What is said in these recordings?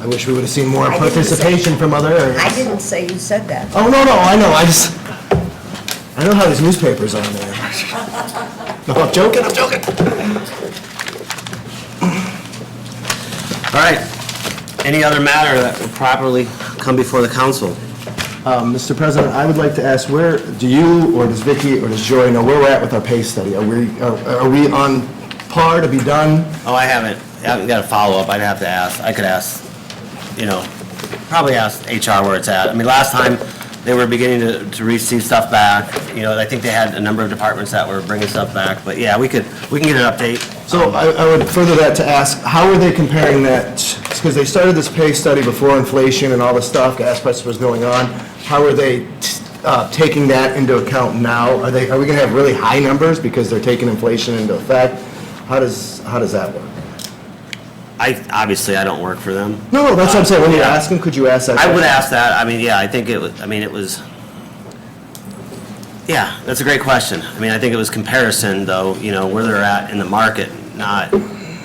I wish we would have seen more I didn't say- participation from other areas. I didn't say you said that. Oh, no, no, I know, I just, I know how these newspapers are there. No, I'm joking, I'm joking. All right. Any other matter that will properly come before the council? Um, Mr. President, I would like to ask, where, do you, or does Vicky, or does Joy know where we're at with our pay study? Are we, are are we on par to be done? Oh, I haven't. I haven't got a follow-up. I'd have to ask. I could ask, you know, probably ask HR where it's at. I mean, last time, they were beginning to, to receive stuff back. You know, I think they had a number of departments that were bringing stuff back, but yeah, we could, we can get an update. So I I would further that to ask, how are they comparing that, because they started this pay study before inflation and all the stuff, gas prices was going on, how are they uh, taking that into account now? Are they, are we going to have really high numbers because they're taking inflation into effect? How does, how does that work? I, obviously, I don't work for them. No, no, that's what I'm saying, when you Yeah. ask them, could you ask that? I would question? ask that, I mean, yeah, I think it was, I mean, it was, yeah, that's a great question. I mean, I think it was comparison, though, you know, where they're at in the market, not,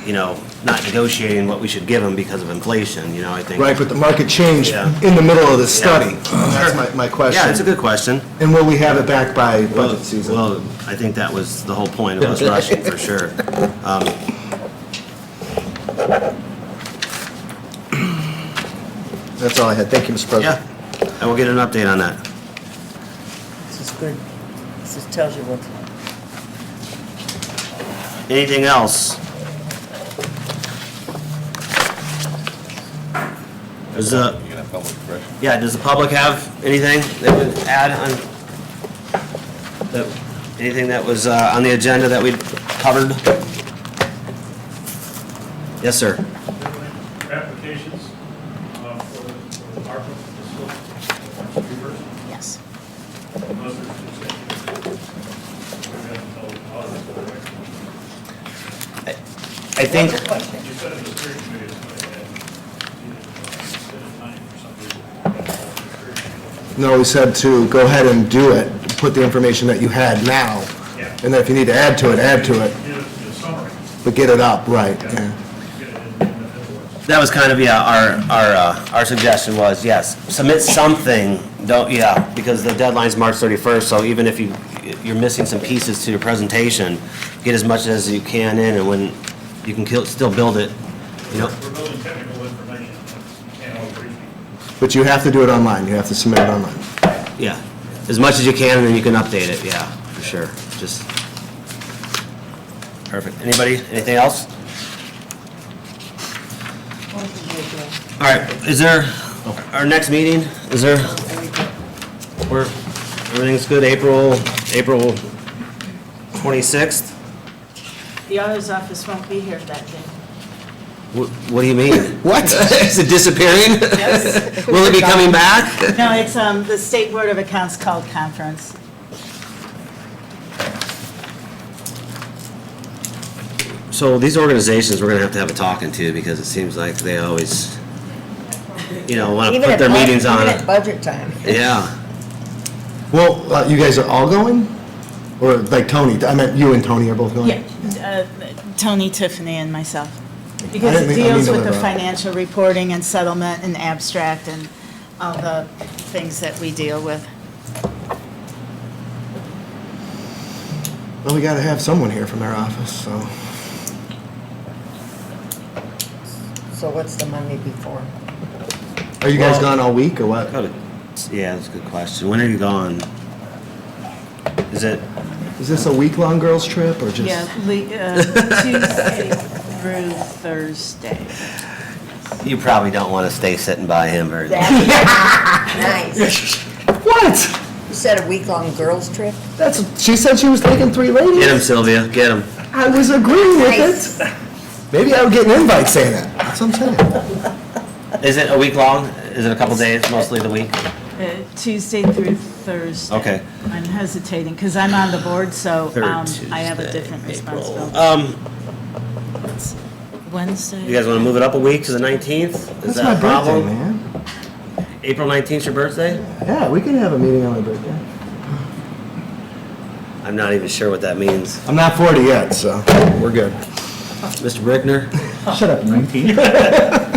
you know, not negotiating what we should give them because of inflation, you know, I think. Right, but the market changed Yeah. in the middle of this Yeah. study. That's my, my question. Yeah, it's a good question. And will we have it back by Well, budget season? well, I think that was the whole point of us rushing, for sure. Um, That's all I had, thank you, Mr. President. Yeah, I will get an update on that. This is good. This is- tells you what. Anything else? Is the, yeah, does the public have anything that would add on, that, anything that was uh, on the agenda that we covered? Yes, sir. applications uh, for for ARPA facility, reimbursement. Yes. Those are two separate. We're gonna tell all of us what we're- I think, You said it was three committees, but I had, you know, instead of nine for some reason. I had No, we said to go ahead and do it, put the information that you had now. Yeah. And then if you need to add to it, add to it, three. Did a- did a summary, but get it up, right, yeah. get it in the invoice. that was kind of, yeah, our, our, uh, our suggestion was, yes, submit something, don't, yeah, because the deadline's March 31st, so even if you, you're missing some pieces to your presentation, get as much as you can in, and when, you can kill- still build it, you know? We're building technical information, you can't all brief you. But you have to do it online, you have to submit it online. Yeah, as much as you can, and then you can update it, yeah, for sure, just. Perfect. Anybody, anything else? All right, is there, our next meeting, is there, we're, everything's good, April, April twenty-sixth? The auditor's office won't be here that day. What, what do you mean? What? Is it disappearing? Yes. Will it be coming back? No, it's, um, the State Board of Accounts called conference. So these organizations, we're gonna have to have a talking to, because it seems like they always, you know, wanna Even put at their bud- meetings on Even at it. budget time. Yeah. Well, uh, you guys are all going? Or like Tony, I meant you and Tony are both going? Yeah, uh, Tony, Tiffany, and myself. I Because didn't it mean- I deals mean to with the interrupt. financial reporting and settlement and abstract and all the things that we deal with. Well, we gotta have someone here from our office, so. So what's the Monday before? Are you guys Well- Uh, gone all week or what? Yeah, that's a good question. When are you gone? Is it, Is this a week-long girls' trip or just? Yeah, le- uh, Tuesday through Thursday. you probably don't want to stay sitting by him very long. That- Nice. What? You said a week-long girls' trip? That's, she said she was taking three ladies. Get him, Sylvia, get him. I was agreeing Nice. with it. Maybe I would get an invite saying that. That's what I'm saying. Is it a week long? Is it a couple days, mostly the week? Uh, Tuesday through Thursday. Okay. I'm hesitating, because I'm on the board, so Third um, I have a Tuesday, different April. responsibility. Um, Wednesday? you guys want to move it up a week to the 19th? Is That's that my a birthday, problem? man. April 19th, your birthday? Yeah, we can have a meeting on my birthday. I'm not even sure what that means. I'm not 40 yet, so we're good. Mr. Brickner? Shut up, you.